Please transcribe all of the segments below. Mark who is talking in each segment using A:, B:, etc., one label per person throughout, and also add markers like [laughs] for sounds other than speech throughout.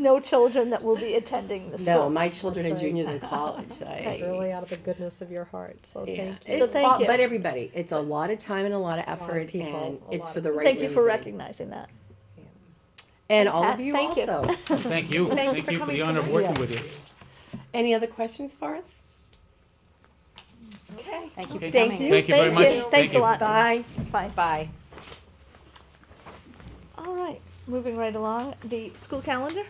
A: no children that will be attending the
B: No,
A: school.
B: my children are
C: That's right.
A: [laughs]
B: juniors in college. I,
C: Really out of the goodness of your heart, so
B: yeah.
C: thank you.
B: It-
A: So thank
B: all-
A: you.
B: But everybody, it's a lot of time and a lot of
C: of
B: effort,
C: people,
B: and
C: a
B: it's
C: lot
B: for
C: of
B: the right
A: Thank you for
B: reason.
A: recognizing that.
B: And all of
A: Pat,
B: you
A: thank you. [laughs]
B: also.
D: Thank you.
B: Thank you
D: Thank
B: for
D: you for the
B: coming
D: honor of
B: tonight.
D: working
B: Yes.
D: with you.
B: Any other questions for us?
A: Okay.
E: Thank you for
D: Okay.
E: coming.
A: Thank you.
D: Thank you very much. Thank
A: Thanks a
D: you.
A: lot.
B: Bye.
A: Bye.
E: Bye.
A: All right, moving right along, the school calendar.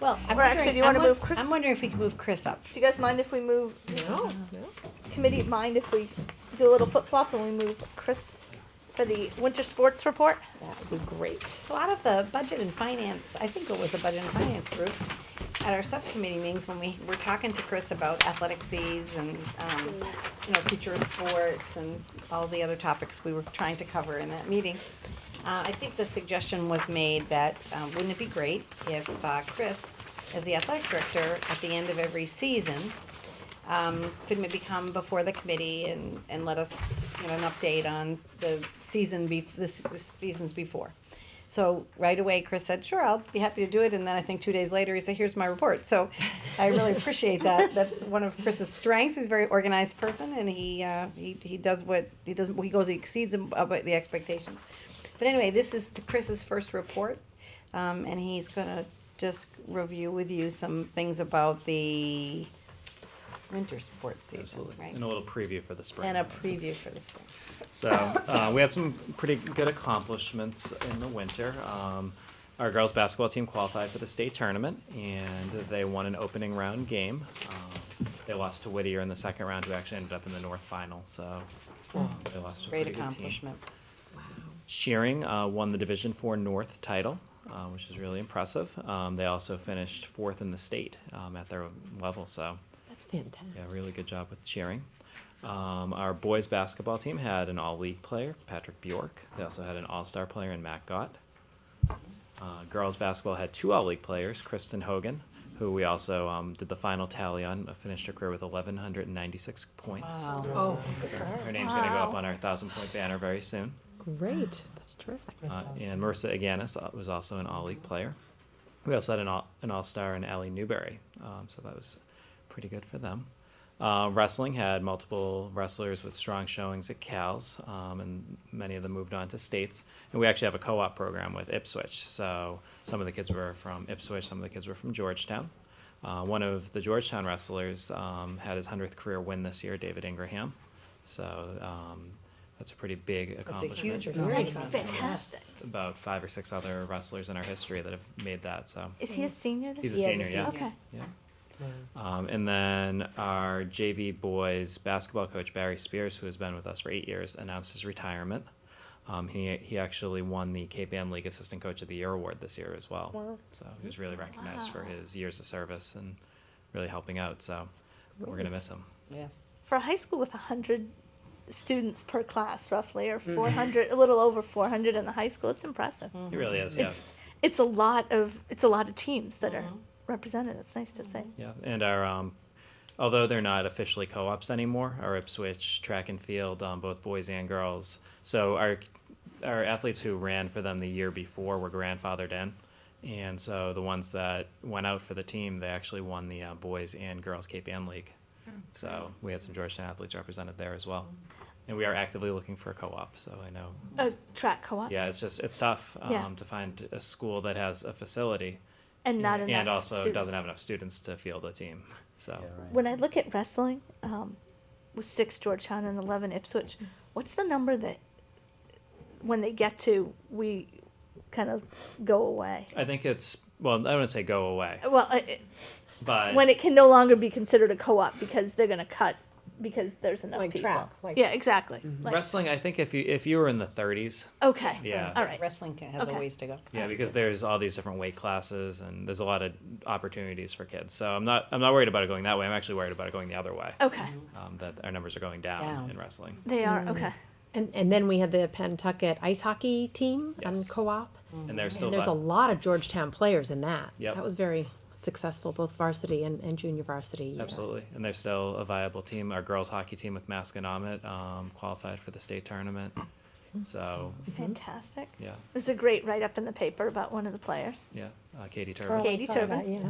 E: Well, I'm
A: Or actually,
E: wondering-
A: do you wanna
E: I'm won-
A: move Chris?
E: I'm wondering if we can move Chris up.
A: Do you guys mind if we move?
C: No, no.
A: Committee mind if we do a little flip flop and we move Chris for the winter sports report?
E: That would be great. A lot of the budget and finance, I think it was a budget and finance group, at our subcommittee meetings, when we were talking to Chris about athletic fees and, um, you know, future of sports and all the other topics we were trying to cover in that meeting. Uh, I think the suggestion was made that, um, wouldn't it be great if, uh, Chris, as the athletic director, at the end of every season, um, could maybe come before the committee and, and let us get an update on the season be, the, s- the seasons before. So right away, Chris said, sure, I'll be happy to do it, and then I think two days later, he said, here's my report, so I really appreciate that, that's one of Chris's strengths, he's a very organized person, and he, uh, he, he does what, he does, he goes, he exceeds ab- above the expectations. But anyway, this is the- Chris's first report, um, and he's gonna just review with you some things about the winter sports season,
F: Absolutely.
E: right?
F: And a little preview for the spring.
E: And a preview for the spring.
F: So uh, we had some pretty good accomplishments in the winter. Um, our girls basketball team qualified for the state tournament, and they won an opening round game. Um, they lost to Whittier in the second round, who actually ended up in the north final. So um, they lost to a
E: Great
F: pretty good team.
E: accomplishment.
F: Shearing uh, won the Division Four North title, uh, which is really impressive. Um, they also finished fourth in the state um, at their level. So
B: That's fantastic.
F: yeah, really good job with cheering. Um, our boys basketball team had an all league player, Patrick Bjork. They also had an all star player in Matt Gott. Uh, girls basketball had two all league players, Kristen Hogan, who we also um, did the final tally on, uh, finished her career with 1,196 points.
E: Wow.
C: Oh,
F: Her name's going to go up on our 1,000 point banner very soon.
B: Great.
C: Ah.
B: That's terrific.
F: Uh, and Marissa Aganis uh, was also an all league player. We also had an all an all star in Allie Newberry, um, so that was pretty good for them. Uh, wrestling had multiple wrestlers with strong showings at Cal's, um, and many of them moved on to states. And we actually have a co op program with Ipswich, so some of the kids were from Ipswich, some of the kids were from Georgetown. Uh, one of the Georgetown wrestlers um, had his 100th career win this year, David Ingraham. So um, that's a pretty big
E: It's a
F: accomplishment
E: huge
A: That's
E: accomplishment.
A: fantastic.
F: about five or six other wrestlers in our history that have made that. So
A: Is he a senior this
F: he's a
A: year?
F: senior, yeah.
A: Mm. Okay.
F: Yeah. Um, and then our JV boys basketball coach Barry Spears, who has been with us for eight years, announced his retirement. Um, he he actually won the Cape Ann League Assistant Coach of the Year award this year as well. So he was really recognized for
A: Wow.
F: his years of service and really helping out. So we're gonna miss him.
E: Yes.
A: For a high school with 100 students per class, roughly, or 400, a little over 400 in the high school, it's impressive.
F: He really is. Yeah.
A: It's it's a lot of it's a lot of teams that are represented. That's nice to say.
F: Yeah, and our um, although they're not officially co-ops anymore, our Ipswich track and field, um, both boys and girls. So our our athletes who ran for them the year before were grandfathered in, and so the ones that went out for the team, they actually won the uh, boys and girls Cape Ann League. So we had some Georgetown athletes represented there as well, and we are actively looking for a co-op. So I know
A: A Oh, track co-op
F: yeah, it's just it's tough um,
A: Yeah.
F: to find a school that has a facility
A: and not enough
F: and also
A: students.
F: doesn't have enough students to field a team. So.
A: When I look at wrestling, um, with six Georgetown and eleven Ipswich, what's the number that when they get to we kind of go away?
F: I think it's well, I wouldn't say go away,
A: Well, I-
F: but
A: when it can no longer be considered a co-op because they're going to cut because there's enough
C: Like
A: people.
C: track, like-
A: yeah, exactly.
F: Mm-hmm.
A: Like,
F: wrestling, I think if you if you were in the 30s,
A: okay.
F: Yeah.
A: All right.
E: Wrestling ca- has a
A: Okay.
E: ways to go.
F: yeah, because there's all these different weight classes and there's a lot of opportunities for kids. So I'm not I'm not worried about it going that way. I'm actually worried about it going the other way.
A: Okay.
F: Um, that our numbers are going down,
E: Down.
F: in wrestling.
A: They are
C: Mm-hmm.
A: okay.
C: And, and then we had the Pentucket ice hockey team on
F: Yes.
C: co-op.
F: And there's still
C: And there's a
F: lot-
C: lot of Georgetown players in that.
F: Yep.
C: That was very successful, both varsity and, and junior varsity. yeah.
F: Absolutely, and they're still a viable team. Our girls hockey team with Maskinomic um, qualified for the state tournament. So
A: Fantastic.
F: yeah,
A: There's a great write up in the paper about one of the players.
F: yeah, uh, Katie Turbo.
A: Katie
C: I saw Oh, that,
A: Tobin.
C: yeah.